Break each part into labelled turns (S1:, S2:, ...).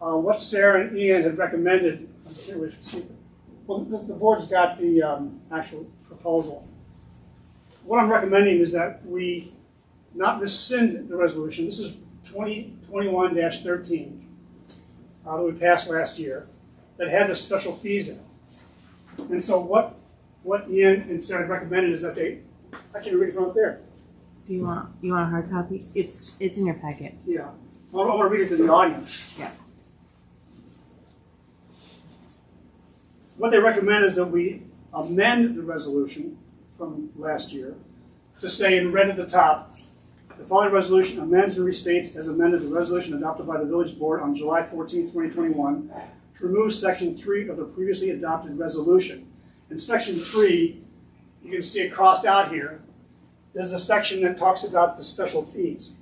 S1: uh, what Sarah and Ian had recommended, I forget which, see, well, the, the board's got the, um, actual proposal. What I'm recommending is that we not rescind the resolution, this is twenty, twenty-one thirteen, uh, that we passed last year, that had the special fees in it. And so what, what Ian and Sarah recommended is that they, I can read it from up there.
S2: Do you want you want a hard copy? It's it's in your packet.
S1: Yeah, I want to read it to the audience.
S2: Yeah.
S1: What they recommend is that we amend the resolution from last year to say in red at the top, the following resolution amends and restates as amended the resolution adopted by the village board on July 14, 2021, to remove section three of the previously adopted resolution. In section three, you can see it crossed out here, this is a section that talks about the special fees.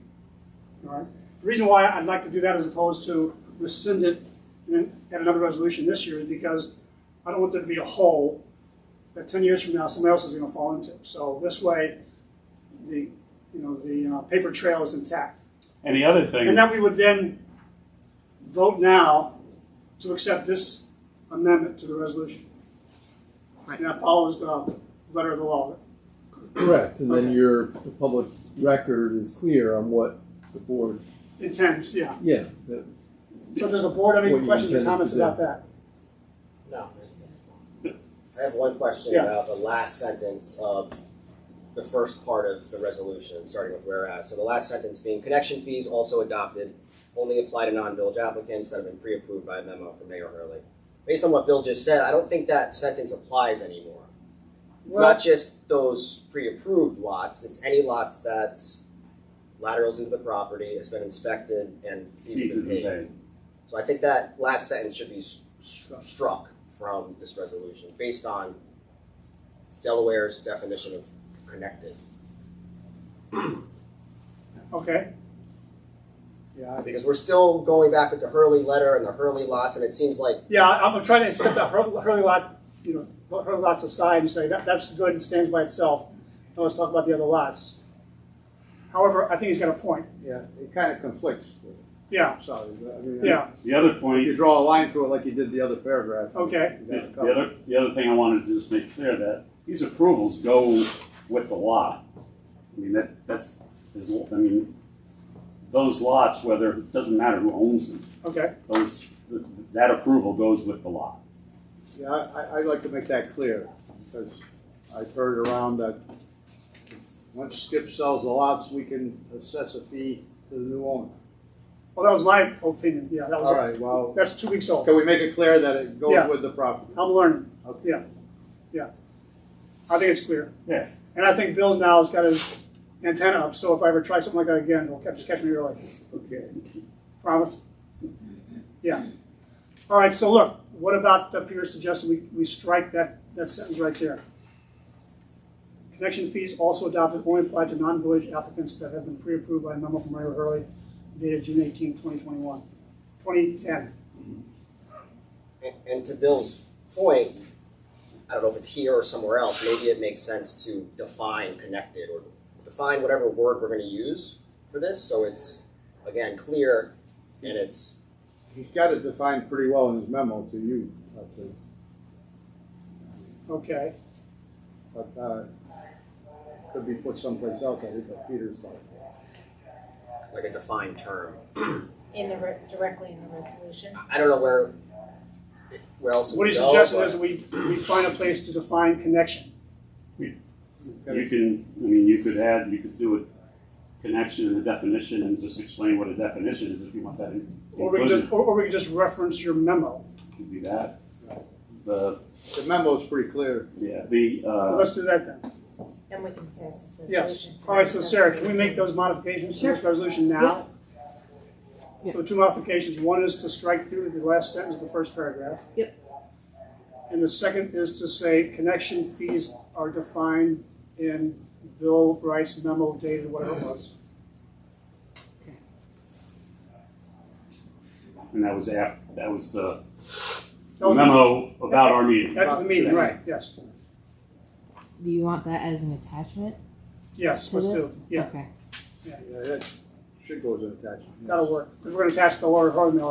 S1: All right. The reason why I'd like to do that as opposed to rescind it and then add another resolution this year is because I don't want there to be a hole that ten years from now, somebody else is gonna fall into. So this way, the, you know, the uh, paper trail is intact.
S3: And the other thing,
S1: And that we would then vote now to accept this amendment to the resolution.
S2: Right.
S1: And that follows the letter of the law.
S4: Correct, and then
S1: Okay.
S4: your, the public record is clear on what the board,
S1: Intends, yeah.
S4: yeah, that-
S1: So does the board have
S4: What
S1: any
S4: you
S1: questions or
S4: intended to
S1: comments
S4: do.
S1: about that?
S5: No. I have one question
S1: Yeah.
S5: about the last sentence of the first part of the resolution, starting with whereas. So the last sentence being connection fees also adopted only apply to non-village applicants that have been pre-approved by a memo from Mayor Hurley. Based on what Bill just said, I don't think that sentence applies anymore. It's
S1: Well-
S5: not just those pre-approved lots, it's any lots that laterals into the property, has been inspected, and fees have
S3: fees
S5: been
S3: and
S5: paid.
S3: pay.
S5: So I think that last sentence should be s- stru- struck from this resolution based on Delaware's definition of connected.
S1: Okay. Yeah, I-
S5: Because we're still going back with the Hurley letter and the Hurley lots, and it seems like
S1: yeah, I- I'm trying to set that Hur- Hurley lot, you know, put Hurley lots aside and say that, that's good and stands by itself. Now let's talk about the other lots. However, I think he's got a point.
S6: Yeah, it kind of conflicts with it,
S1: Yeah,
S6: so, I mean.
S1: yeah,
S3: The other
S6: If you
S3: point,
S6: draw a line through it like you did the other paragraph.
S1: Okay.
S6: you got
S3: the
S6: it
S3: the
S6: covered.
S3: other, the other thing I wanted to just make clear that these approvals go with the lot. I mean, that, that's, is, I mean, those lots, whether, it doesn't matter who owns them,
S1: okay.
S3: those, th- that approval goes with the lot.
S6: Yeah, I, I- I'd like to make that clear, because I've heard around that once Skip sells the lots, we can assess a fee to the new owner.
S1: Well, that was my opinion. Yeah, that
S6: All
S1: was,
S6: right, well,
S1: that's two weeks old.
S6: can we make it clear that it
S1: Yeah.
S6: goes with the property?
S1: I'm learning.
S6: Okay.
S1: Yeah, yeah. I think it's clear.
S3: Yeah.
S1: And I think Bill now has got his antenna up, so if I ever try something like that again, he'll catch, catch me early.
S3: Okay.
S1: Promise? Yeah. All right, so look, what about uh, Peter's suggestion, we, we strike that, that sentence right there? Connection fees also adopted only apply to non-village applicants that have been pre-approved by a memo from Mayor Hurley dated June 18, 2021, 2010.
S5: And, and to Bill's point, I don't know if it's here or somewhere else, maybe it makes sense to define connected or define whatever word we're gonna use for this, so it's, again, clear and it's,
S6: He's got it defined pretty well in his memo to you, I think.
S1: Okay,
S6: but, uh, could be put someplace else, I think, like Peter's thought.
S5: like a defined term.
S7: In the, re- directly in the resolution.
S5: I- I don't know where, where else.
S1: so
S5: it
S1: what
S5: would
S1: he's
S5: go,
S1: suggesting
S5: but-
S1: is we, we find a place to define connection.
S3: You can, I mean, you could add, you could do a connection and a definition and just explain what a definition is if you want that in-
S1: Or we can
S3: included.
S1: just, or or we can just reference your memo.
S3: You could do that. The,
S6: The memo's pretty clear.
S3: yeah, the,
S1: Well,
S3: uh,
S1: Let's do that then.
S7: And we can pass this
S1: Yes.
S7: resolution.
S1: All right, so Sarah, can we make those modifications to this resolution now? So two modifications, one is to strike through the last sentence of the first paragraph.
S2: Yep.
S1: And the second is to say connection fees are defined in Bill Bright's memo dated whatever it was.
S3: and that was app, that was the
S1: That was the-
S3: memo about our meeting.
S1: That's the meeting, right, yes,
S2: Do you want that as an attachment
S1: yes,
S2: to
S1: let's do, it.
S2: this?
S1: yeah,
S2: Okay.
S6: Yeah, that should go as an attachment.
S1: that'll work, because we're gonna attach the Laura Hardman